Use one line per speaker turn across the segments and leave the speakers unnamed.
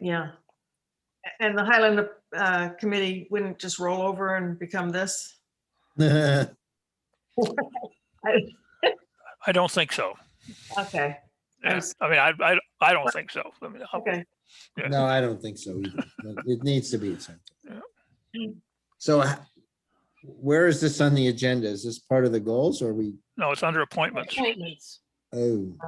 yeah. A- And the Highland uh, Committee wouldn't just roll over and become this?
I don't think so.
Okay, I
Yeah.
was-
I mean, I, I, I don't think so. I mean, how-
okay.
yeah.
No, I don't think so either. but It needs to be
Yeah.
something. So h- where is this on the agenda? Is this part of the goals or we,
No, it's under appointments.
Appointments.
oh,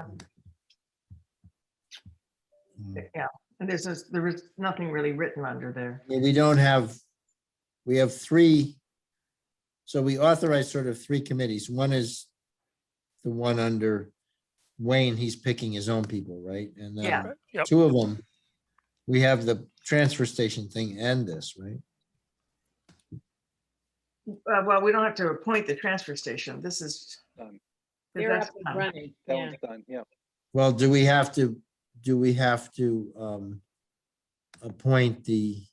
Hmm.
Yeah, and there's, just- there is nothing really written under there.
I mean, we don't have, we have three. So we authorize sort of three committees. One is the one under Wayne, he's picking his own people, right? And
Yeah.
then
Yep.
two of them, we have the transfer station thing and this, right?
Uh, Well, we don't have to appoint the transfer station. This is.
Done.
They're
that's
up and
done.
running,
That
yeah.
one's done, yeah.
Well, do we have to, do we have to um appoint the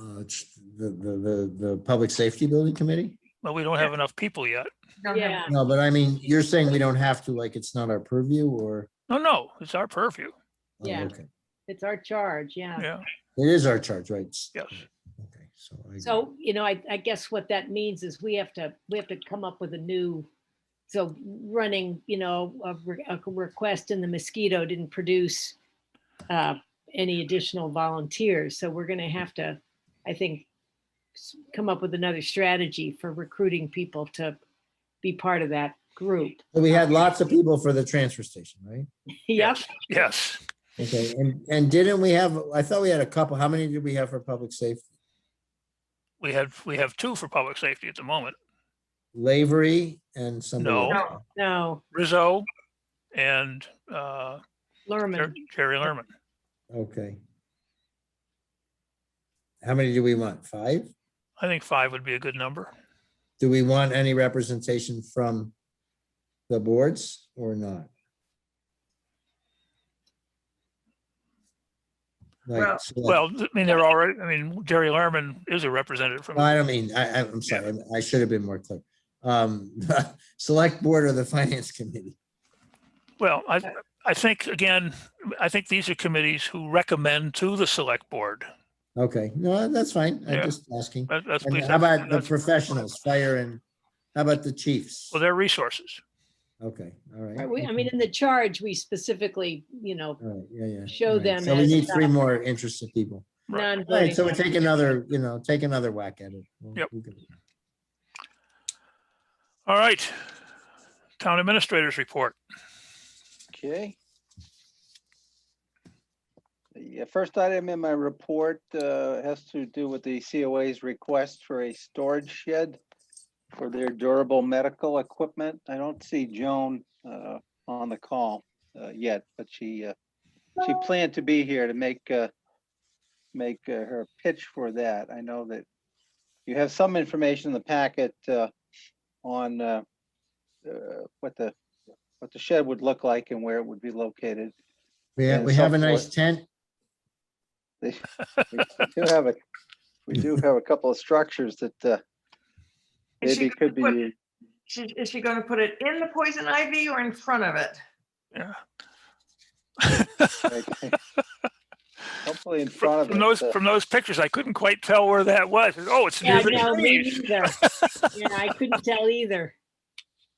uh ch- the, the, the, the Public Safety Building Committee?
But we don't have enough people yet.
We don't have-
Yeah.
No, but I mean, you're saying we don't have to, like, it's not our purview or?
No, no, it's our purview.
oh,
Yeah.
okay.
It's our charge, yeah.
Yeah,
It is our charge, right? S-
yes.
Okay, so. I agree.
So, you know, I, I guess what that means is we have to, we have to come up with a new, so running, you know, a, re- a request in the mosquito didn't produce uh, any additional volunteers, so we're gonna have to, I think, s- come up with another strategy for recruiting people to be part of that group.
But We had lots of people for the transfer station, right?
Yep,
Yes.
Okay, and, and didn't we have, I thought we had a couple, how many did we have for public safety?
We have, we have two for public safety at the moment.
Lavery and somebody.
No.
else.
No,
no,
Rizzo and uh, Jer-
Lerman,
Jerry Lerman.
Okay. How many do we want? Five?
I think five would be a good number.
Do we want any representation from the boards or not?
Well-
Like, select-
Well, I mean, they're already, I mean, Jerry Lerman is a representative from,
No, I don't mean, I, I- I'm sorry, I should have been more clear. Um, select board or the finance committee?
well, I, I think, again, I think these are committees who recommend to the select board.
Okay, no, that's fine. I'm
Yeah.
just asking.
That- That's,
And
we-
how about the
that's-
professionals, fire and, how about the chiefs?
Well, their resources.
Okay, all right.
we, I mean, in the charge, we specifically, you know,
All right, yeah, yeah. all
show
right.
them
So we
as,
need three
uh,
more interested people.
Right.
All right,
non-voting.
so we take another, you know, take another whack at it. We'll-
Yep.
we'll get-
All right. Town administrators report.
Okay. The uh, first item in my report uh, has to do with the COA's request for a storage shed for their durable medical equipment. I don't see Joan uh, on the call uh, yet, but she, uh, she planned to be here to make, uh, make uh, her pitch for that. I know that you have some information in the packet uh, on uh, uh, what the what the shed would look like and where it would be located.
We have,
And
we
so
have a nice
forth.
tent.
They- We do have a, we do have a couple of structures that uh,
Is she
maybe could
gonna
be,
She, is she going to put it in the poison ivy or in front of it?
Yeah.
like, hopefully in
From
front
from
of
those,
us. uh,
from those pictures, I couldn't quite tell where that was. Oh, it's near
Yeah,
the
no, me
trees.
neither. Yeah, I couldn't tell either.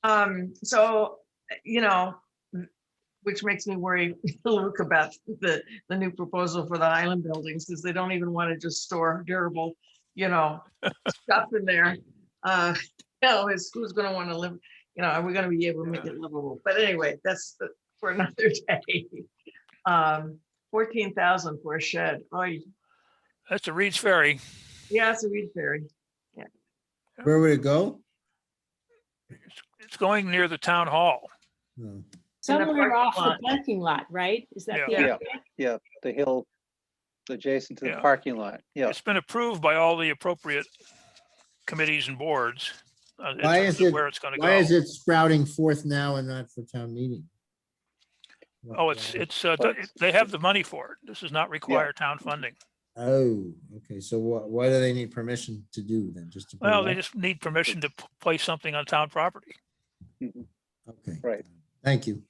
Um, so, you know, which makes me worry, Luke, about the, the new proposal for the island buildings, because they don't even want to just store durable, you know, stuff in there. Uh, you know, is who's gonna want to live, you know, are we gonna be able to make it livable? But anyway, that's the- for another day. Um, fourteen thousand for a shed. Oh,
That's the Reed's Ferry.
yeah, it's a reed ferry.
Where would it go?
It's going near the town hall.
No.
In the
Somewhere
parking
off the
lot.
parking lot, right? Is that the
Yeah.
Yeah,
idea?
yeah, the hill adjacent to the
Yeah.
parking lot. Yeah,
It's been approved by all the appropriate committees and boards. uh, in
Why
terms
is
of
it-
Where it's gonna
Why is
go.
it sprouting forth now and not for town meeting?
Oh, it's, it's, uh,
But-
they have the money for it. This does not require town funding.
Oh, okay, so what, why do they need permission to do then? Just to. put it
Well, they
up?
just need permission to p- place something on town property.
Okay.
Right.
Thank you.